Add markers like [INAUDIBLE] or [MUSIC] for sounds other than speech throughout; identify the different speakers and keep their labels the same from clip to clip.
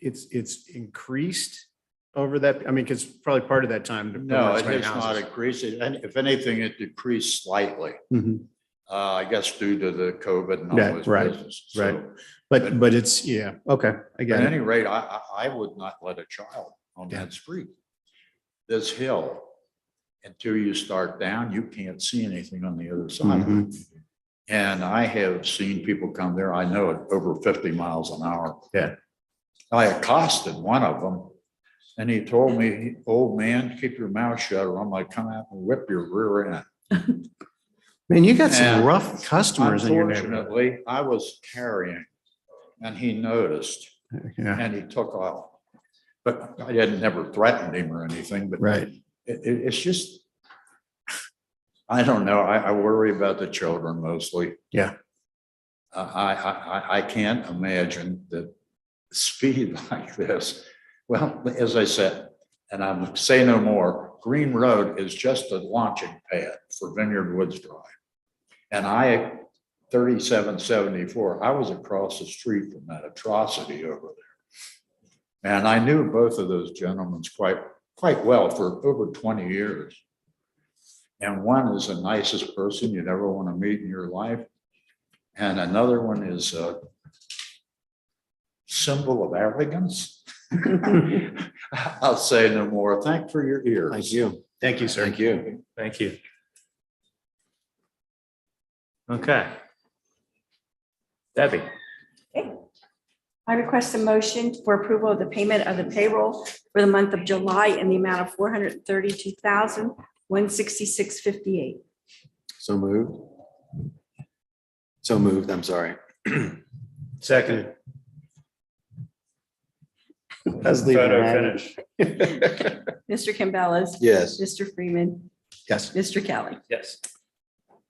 Speaker 1: it's, it's increased over that, I mean, because probably part of that time. to put
Speaker 2: No,
Speaker 1: on
Speaker 2: it
Speaker 1: so many
Speaker 2: has not
Speaker 1: houses.
Speaker 2: increased. It- And if anything, it decreased slightly,
Speaker 1: Mhm.
Speaker 2: uh, I guess due to the COVID and all
Speaker 1: Yeah,
Speaker 2: those
Speaker 1: right,
Speaker 2: business.
Speaker 1: right.
Speaker 2: So,
Speaker 1: But, but it's, yeah, okay, I
Speaker 2: At
Speaker 1: get it.
Speaker 2: any rate, I, I, I would not let a child on
Speaker 1: Yeah.
Speaker 2: that street. This hill, until you start down, you can't see anything on the other side. of
Speaker 1: Mm-hmm.
Speaker 2: it. And I have seen people come there, I know it, over fifty miles an hour.
Speaker 1: Yeah.
Speaker 2: I accosted one of them and he told me, old man, keep your mouth shut or I'm gonna come out and whip your rear end.
Speaker 1: Man, you got some
Speaker 2: Yeah.
Speaker 1: rough customers in your neighborhood.
Speaker 2: Unfortunately, I was carrying and he noticed
Speaker 1: Yeah,
Speaker 2: and he took off. But I hadn't never threatened him or anything, but
Speaker 1: right.
Speaker 2: it, it- it's just, I don't know, I, I worry about the children mostly.
Speaker 1: Yeah.
Speaker 2: I, I, I- I, I can't imagine that speed [LAUGHS] like this. Well, as I said, and I'm say no more, Green Road is just a launching pad for Vineyard Woods Drive. And I, thirty-seven seventy-four, I was across the street from that atrocity over there. And I knew both of those gentlemen quite quite well for over twenty years. And one is the nicest person you'd ever want to meet in your life. And another one is a symbol of arrogance. [LAUGHS] I'll say no more. Thank for your ears.
Speaker 1: Thank you. Thank you, sir.
Speaker 2: Thank you.
Speaker 3: Thank you. Okay. Debbie,
Speaker 4: I request a motion for approval of the payment of the payroll for the month of July in the amount of four hundred thirty-two thousand, one sixty-six fifty-eight.
Speaker 5: So moved. So moved, I'm sorry.
Speaker 1: Second.
Speaker 5: Let's leave it
Speaker 3: photo
Speaker 5: at it.
Speaker 3: finish.
Speaker 4: Mr. Campbell.
Speaker 5: Yes,
Speaker 4: Mr. Freeman.
Speaker 1: Yes.
Speaker 4: Mr. Kelly.
Speaker 3: Yes,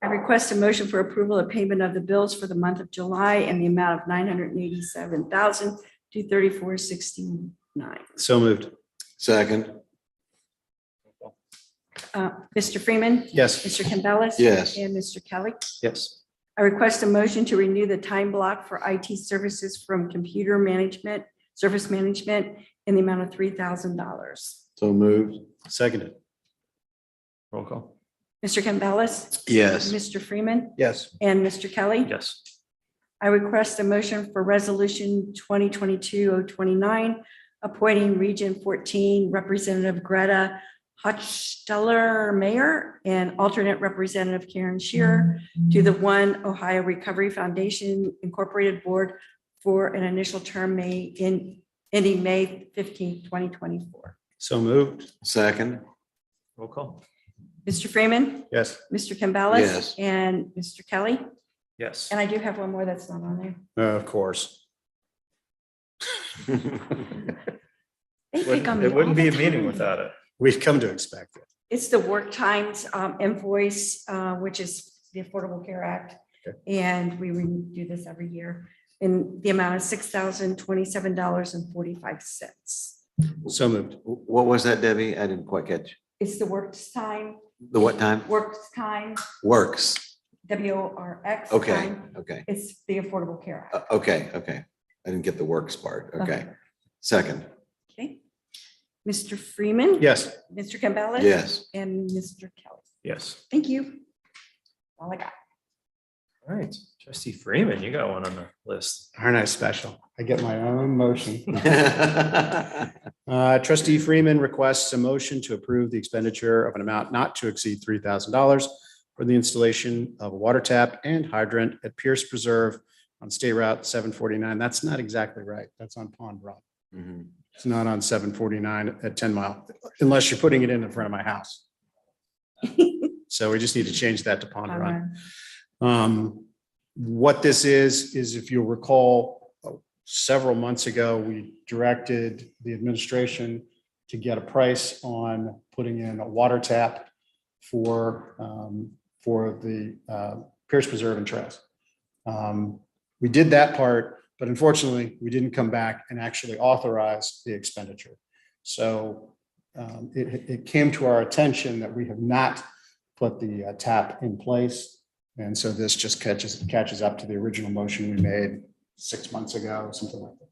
Speaker 4: I request a motion for approval of payment of the bills for the month of July in the amount of nine hundred eighty-seven thousand, two thirty-four sixty-nine.
Speaker 1: So moved.
Speaker 5: second,
Speaker 4: Mr. Uh, Freeman.
Speaker 1: Yes.
Speaker 4: Mr. Campbell.
Speaker 5: Yes.
Speaker 4: And Mr. Kelly.
Speaker 1: Yes.
Speaker 4: I request a motion to renew the time block for IT services from computer management, service management in the amount of three thousand dollars.
Speaker 5: so moved.
Speaker 1: Seconded.
Speaker 3: roll call.
Speaker 4: Mr. Campbell.
Speaker 5: Yes,
Speaker 4: Mr. Freeman
Speaker 1: Yes.
Speaker 4: and Mr. Kelly.
Speaker 3: Yes,
Speaker 4: I request a motion for resolution 2022-029, appointing Region fourteen Representative Greta Hochsteller Mayor and alternate Representative Karen Shearer to the One Ohio Recovery Foundation Incorporated Board for an initial term may in ending May 15, twenty twenty-four.
Speaker 1: So moved.
Speaker 5: second, [LAUGHS]
Speaker 3: roll call.
Speaker 4: Mr. Freeman,
Speaker 1: Yes.
Speaker 4: Mr. Campbell.
Speaker 5: Yes.
Speaker 4: And Mr. Kelly.
Speaker 3: Yes.
Speaker 4: And I do have one more that's not on there.
Speaker 1: Uh, Of course.
Speaker 4: They pick on
Speaker 3: Wouldn't-
Speaker 4: me
Speaker 3: It wouldn't
Speaker 4: all
Speaker 3: be a
Speaker 4: the
Speaker 3: meeting
Speaker 4: time.
Speaker 3: without it.
Speaker 1: We've come to expect it.
Speaker 4: It's the work times um, invoice, uh, which is the Affordable Care Act. And we would do this every year in the amount of six thousand twenty-seven dollars and forty-five cents.
Speaker 1: So moved.
Speaker 5: what was that, Debbie? I didn't quite catch.
Speaker 4: It's the work time,
Speaker 5: The what time?
Speaker 4: work time,
Speaker 5: Works.
Speaker 4: W O R X.
Speaker 5: Okay,
Speaker 4: time.
Speaker 5: okay,
Speaker 4: It's the Affordable Care Act.
Speaker 5: Uh, okay, okay. I didn't get the works part. Uh, Okay, second,
Speaker 4: Okay. Mr. Freeman.
Speaker 1: Yes.
Speaker 4: Mr. Campbell.
Speaker 5: yes. [LAUGHS]
Speaker 4: And Mr. Kelly.
Speaker 3: Yes.
Speaker 4: Thank you. All I got.
Speaker 3: All right, trustee Freeman, you got one on the list.
Speaker 1: Aren't I special? I get my own motion.
Speaker 5: Mm-hmm.
Speaker 1: Uh, Trustee Freeman requests a motion to approve the expenditure of an amount not to exceed three thousand dollars for the installation of a water tap and hydrant at Pierce Preserve on State Route seven forty-nine. That's not exactly right. That's on Pond Rock.
Speaker 5: Mhm.
Speaker 1: It's not on seven forty-nine at ten mile, unless you're putting it in in front of my house. So we just need to change that to Pond Rock. Um, what this is, is if you'll recall, uh, several months ago, we directed the administration to get a price on putting in a water tap for, um, for the, uh, Pierce Preserve and Trails. Um, we did that part, but unfortunately, we didn't come back and actually authorize the expenditure. So, um, it, it came to our attention that we have not put the uh, tap in place. And so this just catches, catches up to the original motion we made six months ago, something like that.